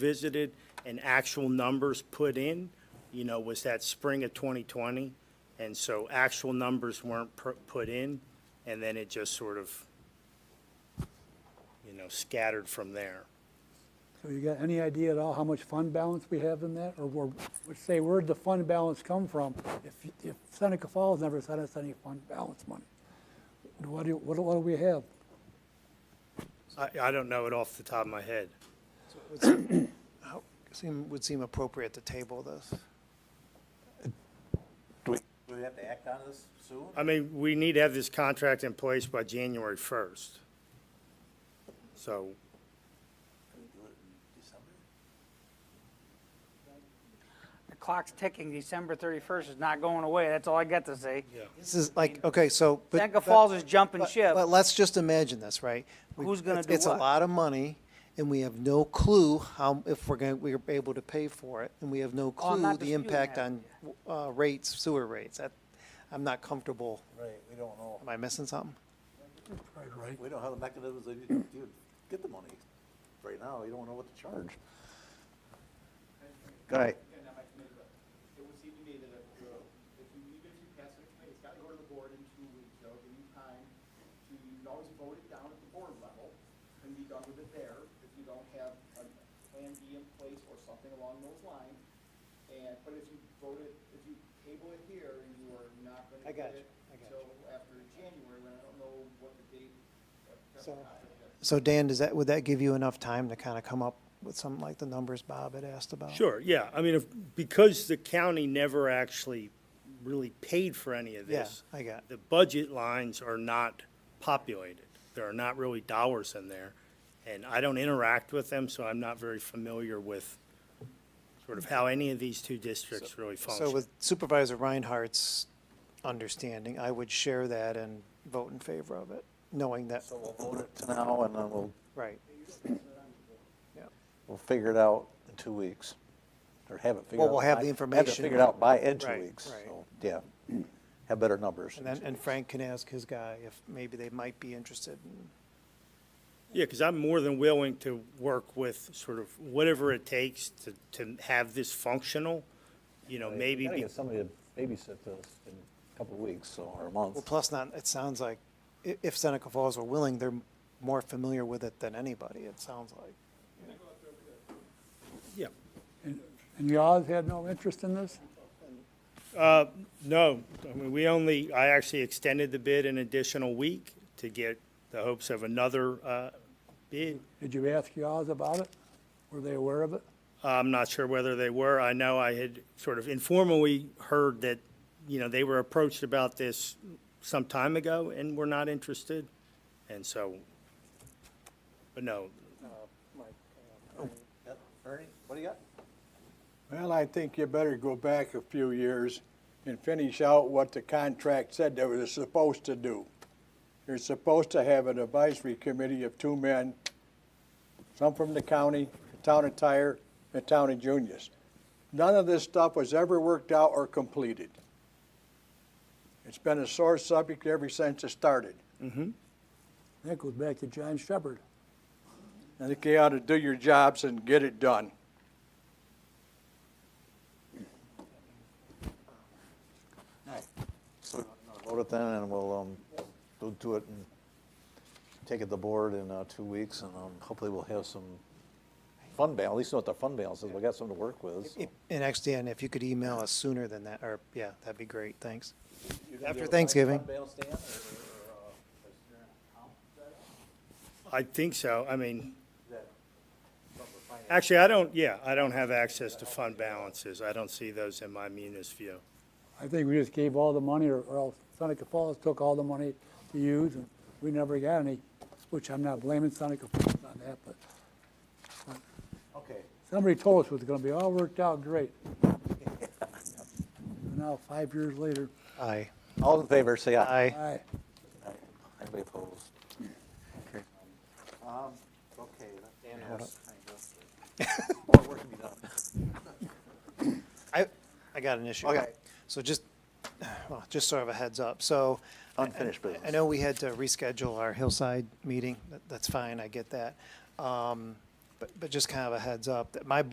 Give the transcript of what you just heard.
revisited and actual numbers put in, you know, was that spring of 2020. And so actual numbers weren't pr- put in, and then it just sort of, you know, scattered from there. So you got any idea at all how much fund balance we have in that? Or where, would say, where'd the fund balance come from? If, if Seneca Falls never sent us any fund balance money, what do, what do what do we have? I, I don't know it off the top of my head. Would seem- how- Seem, would seem appropriate to table this. Do we have to act on this soon? I mean, we need to have this contract in place by January 1st. So, Can we do it in December? The clock's ticking. December 31st is not going away. That's all I got to say. This is like, okay, so. but- Seneca but- Falls is jumping but- ship. But let's just imagine this, right? We- Who's gonna it's- do It's a what? lot of money, and we have no clue how, if we're going, we're able to pay for it, and we have no Oh, I'm clue not the disputing impact that. on uh, rates, sewer rates. That- I'm not comfortable. Right, we don't know. Am I missing something? We don't have the mechanisms to to get the money. Right now, you don't know what to charge. Go ahead. and that my committee, but it would seem to me that if you, if you, even if you pass it, committee, it's got to go to the board in two weeks, that'll give you time to, you can always vote it down at the board level and be done with it there, if you don't have a plan B in place or something along those lines. And, but if you vote it, if you table it here and you are not gonna I got get it you, I got until after January, when I don't know what the date, what the So- contract is. So Dan, does that, would that give you enough time to kind of come up with something like the numbers Bob had asked about? Sure, yeah, I mean, if, because the county never actually really paid for any of Yeah, this. I got- The budget lines are not populated, there are not really dollars in there, and I don't interact with them, so I'm not very familiar with sort of how any of these two districts really So function. with Supervisor Reinhardt's understanding, I would share that and vote in favor of it, knowing that, So we'll vote it now and then we'll, right. Yeah. we'll figure it out in two weeks. Or have it figured out. Well, we'll have the by- Have it information. figured out by in two Right, weeks, right. so, yeah. Have better numbers. And then, and Frank can ask his guy if maybe they might be interested in Yeah, because I'm more than willing to work with sort of whatever it takes to, to have this functional, you know, maybe. You gotta be- get somebody to babysit this in a couple of weeks, so, or a month. Well, plus not, it sounds like i- if Seneca Falls were willing, they're more familiar with it than anybody, it sounds like. Yeah, And Yaws had no interest in this? No, I mean, we only, I actually extended the bid an additional week to get the hopes of another uh, bid. Did you ask Yaws about it? Were they aware of it? I'm not sure whether they were. I know I had sort of informally heard that, you know, they were approached about this some time ago and were not interested. And so, but no, Yep. Ernie, what do you got? Well, I think you better go back a few years and finish out what the contract said they were supposed to do. You're supposed to have an advisory committee of two men, some from the county, the town of Tyre, and the town of Junius. None of this stuff was ever worked out or completed. It's been a sore subject ever since it started. That goes back to John Shepherd. I think you ought to do your jobs and get it done. Vote it then, and we'll, um, go to it and take it to the board in, uh, two weeks, and, um, hopefully we'll have some fund balance, at least know what the fund balance is, we got something to work with, so. And actually, Dan, if you could email us sooner than that, or, yeah, that'd be great, thanks. After Thanksgiving, I think so. I mean, actually, I don't, yeah, I don't have access to fund balances. I don't see those in my munis view. I think we just gave all the money, or or else Seneca Falls took all the money to use, and we never got any, which I'm not blaming Seneca Falls on that, but Okay, somebody told us it was gonna be all worked out great. Now, five years later, aye. all in favor, say aye. Aye. aye. Anybody opposed? Okay. Um, okay, that Dan More work to be done. I, I got an issue. Okay. So just, well, just sort of a heads up. So. I- Unfinished I- I business. know we had to reschedule our Hillside meeting. That- That's fine. I get that. Um, but, but just kind of a heads up that my